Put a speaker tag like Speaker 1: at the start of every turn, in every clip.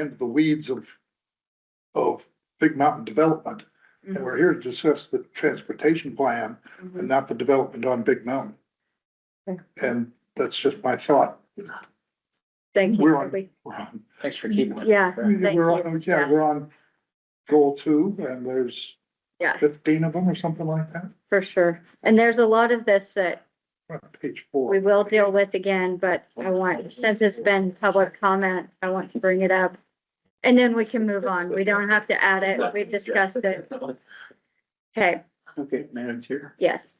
Speaker 1: into the weeds of, of Big Mountain development. And we're here to discuss the transportation plan and not the development on Big Mountain.
Speaker 2: Okay.
Speaker 1: And that's just my thought.
Speaker 2: Thank you.
Speaker 1: We're on-
Speaker 2: Kirby.
Speaker 1: We're on,
Speaker 3: Thanks for keeping it.
Speaker 2: Yeah, Thank
Speaker 1: we're
Speaker 2: you.
Speaker 1: on, yeah,
Speaker 2: Yeah.
Speaker 1: we're on goal two and there's
Speaker 2: Yeah.
Speaker 1: fifteen of them or something like that,
Speaker 2: for sure. And there's a lot of this that
Speaker 1: We're on page
Speaker 2: we
Speaker 1: four.
Speaker 2: will deal with again, but I want, since it's been public comment, I want to bring it up. And then we can move on. We don't have to add it. We've discussed it. Okay,
Speaker 3: Okay, Madam Chair.
Speaker 2: yes.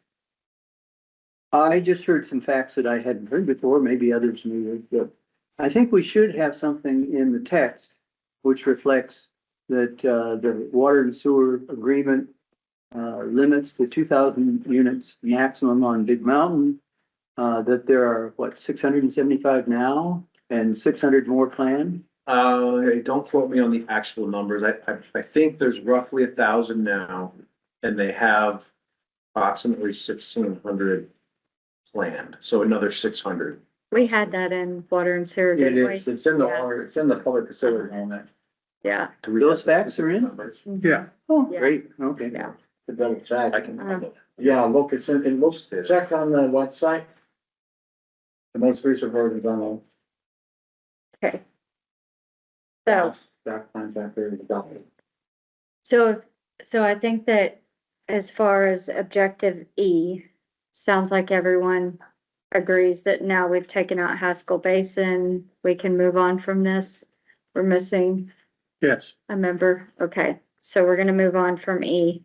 Speaker 3: I just heard some facts that I hadn't heard before, maybe others knew, but I think we should have something in the text which reflects that, uh, the water and sewer agreement, uh, limits to two thousand units maximum on Big Mountain. Uh, that there are, what, six hundred and seventy-five now and six hundred more planned?
Speaker 4: Uh, don't quote me on the actual numbers. I, I, I think there's roughly a thousand now and they have approximately sixteen hundred planned, so another six hundred.
Speaker 2: We had that in water and sewer,
Speaker 5: It
Speaker 2: didn't
Speaker 5: is,
Speaker 2: we?
Speaker 5: it's in the,
Speaker 2: Yeah.
Speaker 5: water- it's in the public facility moment.
Speaker 2: Yeah.
Speaker 3: Those facts are in?
Speaker 1: Yeah.
Speaker 3: Oh,
Speaker 2: Yeah.
Speaker 3: great, okay.
Speaker 2: Yeah.
Speaker 5: To double check.
Speaker 4: I can,
Speaker 3: Uh-huh.
Speaker 2: Uh.
Speaker 5: Yeah, look, it's in, it looks, check on the website. The most recent version's on the.
Speaker 2: Okay. So,
Speaker 5: Doc contractor, the document.
Speaker 2: so, so I think that as far as objective E, sounds like everyone agrees that now we've taken out Haskell Basin, we can move on from this. We're missing
Speaker 3: Yes.
Speaker 2: A member, okay, so we're gonna move on from E.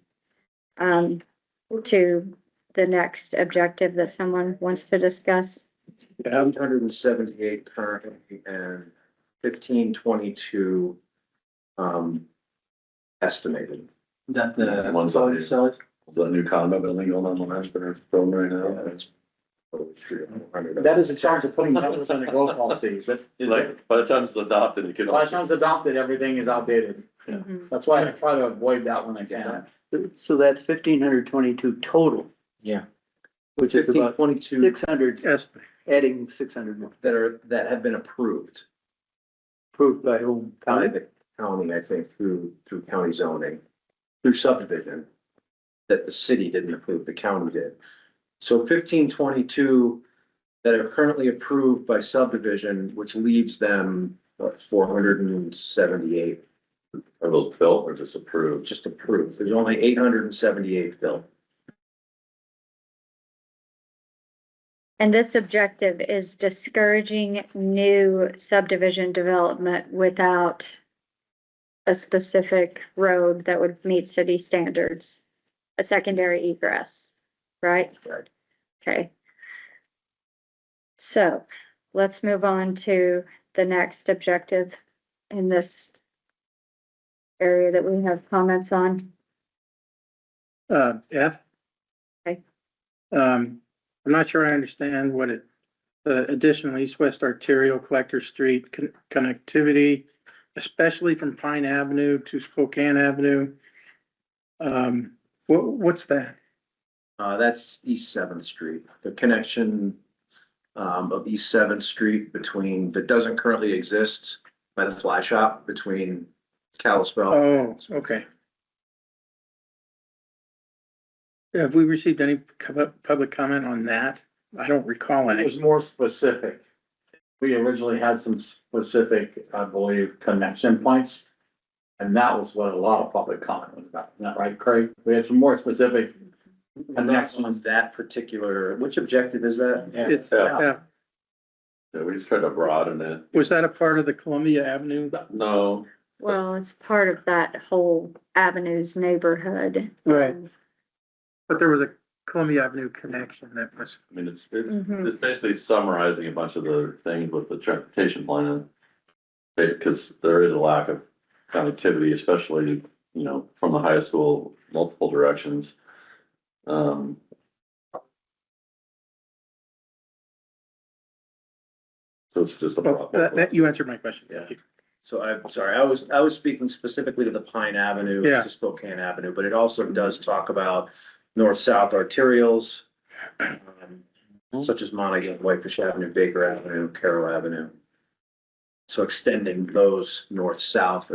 Speaker 2: Um, to the next objective that someone wants to discuss.
Speaker 4: eight hundred and seventy-eight currently and fifteen twenty-two, um, estimated.
Speaker 5: That
Speaker 6: the One's on it. The new condo building going on the entrepreneur's program right now, and it's. oh, it's three hundred.
Speaker 5: That is a charge of putting numbers on the growth policies. It- it's like,
Speaker 6: Like, by the time it's adopted, it can.
Speaker 5: By the time it's adopted, everything is outdated.
Speaker 6: Yeah.
Speaker 2: Mhm.
Speaker 5: That's why I try to avoid that when I can.
Speaker 3: So that's fifteen hundred twenty-two total,
Speaker 4: Yeah.
Speaker 3: which is
Speaker 4: Fifteen
Speaker 3: about
Speaker 4: twenty-two
Speaker 3: six hundred, adding six hundred more,
Speaker 4: that are, that have been approved.
Speaker 3: approved by whom?
Speaker 4: by the county, I think, through, through county zoning, through subdivision, that the city didn't approve, the county did. So fifteen twenty-two that are currently approved by subdivision, which leaves them four hundred and seventy-eight
Speaker 6: Are those built or just approved?
Speaker 4: just approved. There's only eight hundred and seventy-eight built.
Speaker 2: And this objective is discouraging new subdivision development without. A specific road that would meet city standards, a secondary egress, right?
Speaker 4: Right.
Speaker 2: Okay. So let's move on to the next objective in this. Area that we have comments on.
Speaker 7: uh, F.
Speaker 2: Okay.
Speaker 7: Um, I'm not sure I understand what it, the additional east-west arterial collector street con- connectivity, especially from Pine Avenue to Spokane Avenue. Um, what, what's that?
Speaker 4: Uh, that's East Seventh Street, the connection um, of East Seventh Street between, that doesn't currently exist by the fly shop between Kalispell.
Speaker 7: Oh, okay. Have we received any co- public comment on that? I don't recall
Speaker 5: It
Speaker 7: any.
Speaker 5: was more specific. We originally had some specific, I believe, connection points. And that was what a lot of public comment was about, isn't that right, Craig? We had some more specific.
Speaker 4: And next one's that particular, which objective is that?
Speaker 7: It's,
Speaker 6: Yeah.
Speaker 7: uh,
Speaker 6: Yeah, we just tried to broaden it.
Speaker 7: was that a part of the Columbia Avenue?
Speaker 6: No,
Speaker 2: Well, it's part of that whole avenues neighborhood.
Speaker 7: Right. But there was a Columbia Avenue connection that was,
Speaker 6: I mean, it's, it's,
Speaker 2: Mhm.
Speaker 6: it's basically summarizing a bunch of the things with the transportation plan. Because there is a lack of connectivity, especially, you know, from the high school, multiple directions. Um, So it's just a
Speaker 7: oh,
Speaker 6: problem.
Speaker 7: that, that- you answered my question. Thank you.
Speaker 4: So I'm sorry, I was, I was speaking specifically to the Pine Avenue
Speaker 7: Yeah.
Speaker 4: to Spokane Avenue, but it also does talk about north-south arterials um, such as Montague, Whitefish Avenue, Baker Avenue, Carroll Avenue. So extending those north-south